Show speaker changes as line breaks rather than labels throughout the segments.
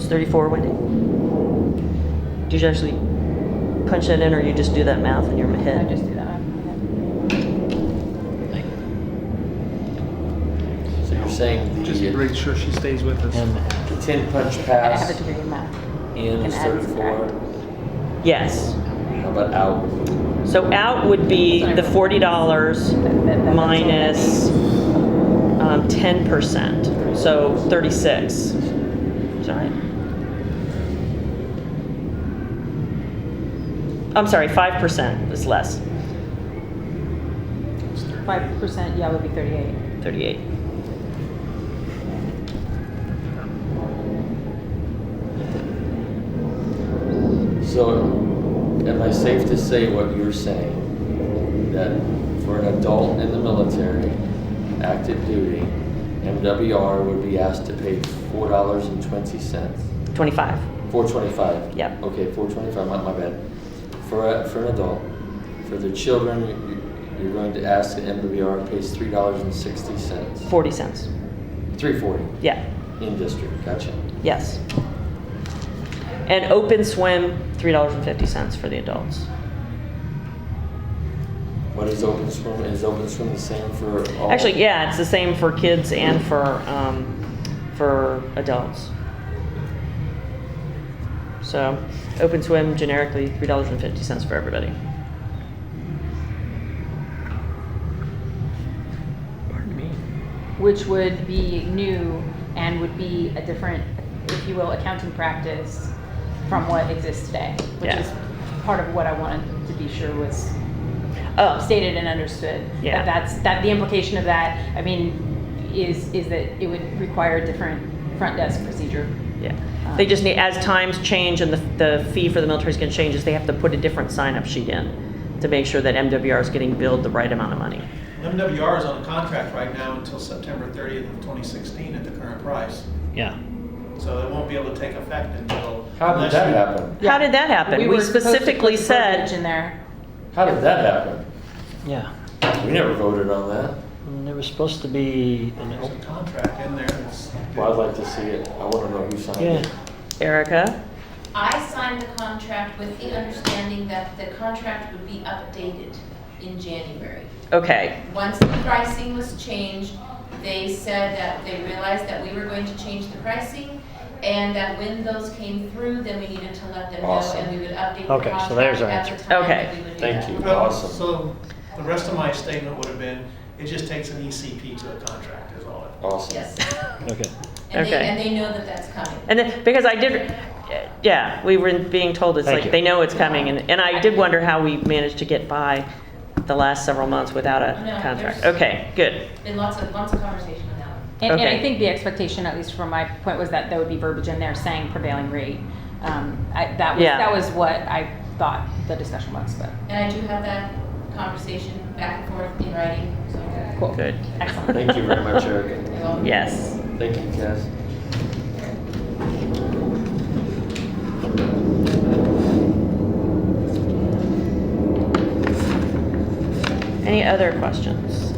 34, Wendy? Did you actually punch that in, or you just do that math in your
I
head?
just do that.
So you're saying
Just
the
make sure she stays with us.
M the ten punch
I have a
pass
degree in math.
in
and
is
add
thirty-four.
Yes.
How about out?
So out would be the $40
That- that- that's
minus um, 10%, so 36. Is that right? I'm sorry, 5% is less,
Five percent, yeah, would be thirty-eight.
38.
So, am I safe to say what you're saying? That for an adult in the military, active duty, MWR would be asked to pay four dollars and twenty cents,
25.
four twenty-five?
Yep.
Okay, four twenty-five, my, my bad. For, a- for an adult, for their children, you- you're going to ask that MWR pays three dollars and sixty cents,
40 cents.
three forty
Yeah,
in district, gotcha.
yes. And open swim, $3.50 for the adults.
What is open swim, is open swim the same for all?
Actually, yeah, it's the same for kids and for, um, for adults. So, open swim generically, three dollars and fifty cents for everybody.
Pardon me.
which would be new and would be a different, if you will, accounting practice from what exists today, which
Yeah.
is part of what I wanted to be sure was
Oh,
stated and understood. That
Yeah.
That's, that, the implication of that, I mean, is, is that it would require a different front desk procedure. Ah.
yeah. They just need, as times change and the, the fee for the military is gonna change, is they have to put a different sign-up sheet in to make sure that MWR is getting billed the right amount of money.
MWR is on a contract right now until September 30th of 2016 at the current price.
Yeah.
So it won't be able to take effect until.
How did
unless
that
you-
happen?
How did that happen? We
were supposed to put
specifically
verbiage In
said,
there.
How did that happen?
Yeah,
We never voted on that.
and there was supposed to be an
There's a
open,
contract in there that's.
Well, I'd like to see it. I want to know who signed
yeah,
it.
Erica,
I signed the contract with the understanding that the contract would be updated in January.
okay,
Once the pricing was changed, they said that they realized that we were going to change the pricing and that when those came through, then we needed to let them know
Awesome.
and we would update the
Okay,
contract
so there's our
at the
answer.
time
Okay.
that we would do
Thank
that.
you.
Well,
Awesome.
So the rest of my statement would have been, it just takes an ECP to a contract is all. it-
Awesome.
Yes,
okay.
and they,
Okay.
and they know that that's coming.
And then, because I did, yeah, we were being told, it's
Thank
like,
you.
they know it's coming, and, and I did wonder how we managed to get by the last several months without a
No,
contract.
there's-
Okay, good.
Been lots of, lots of conversation on that one.
And, and
Okay.
I think the expectation, at least from my point, was that there would be verbiage in there saying prevailing rate. Um, I, that was,
Yeah.
that was what I thought the discussion was, but.
And I do have that conversation back and forth in writing, so.
Cool.
Good.
Excellent.
Thank you very much, Eric.
you're welcome.
Yes.
Thank you, Cass.
Any other questions?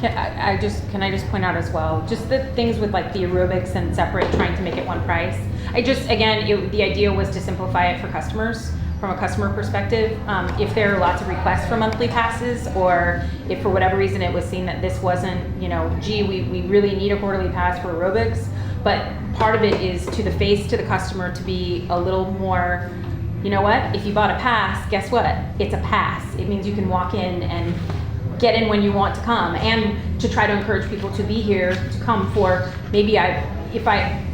Can, I, I just, can I just point out as well, just the things with like the aerobics and separate, trying to make it one price. I just, again, it, the idea was to simplify it for customers, from a customer perspective. Um, if there are lots of requests for monthly passes, or if for whatever reason it was seen that this wasn't, you know, gee, we, we really need a quarterly pass for aerobics, but part of it is to the face, to the customer, to be a little more you know what? If you bought a pass, guess what? It's a pass. It means you can walk in and get in when you want to come and to try to encourage people to be here to come for maybe I if I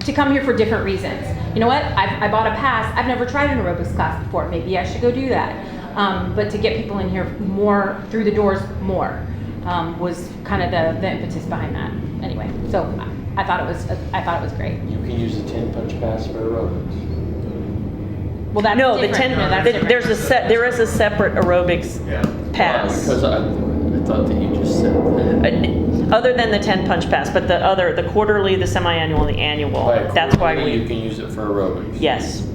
to come here for different reasons. You know what? I, I bought a pass. I've never tried an aerobics class before. Maybe I should go do that. Um, but to get people in here more through the doors more um, was kind of the, the impetus behind that. Anyway, so I, I thought it was I thought it was great.
You can use the ten punch pass for aerobics.
Well, that's
No, the
different.
10,
No, that's
the-
different.
there's a set, there is a separate aerobics
Yeah.
pass.
Because I, I thought that you just said that.
Uh, Other than the 10 punch pass, but the other, the quarterly, the semi-annual, and the annual.
By a
That's why
quarterly, You
we,
can use it for aerobics.
yes,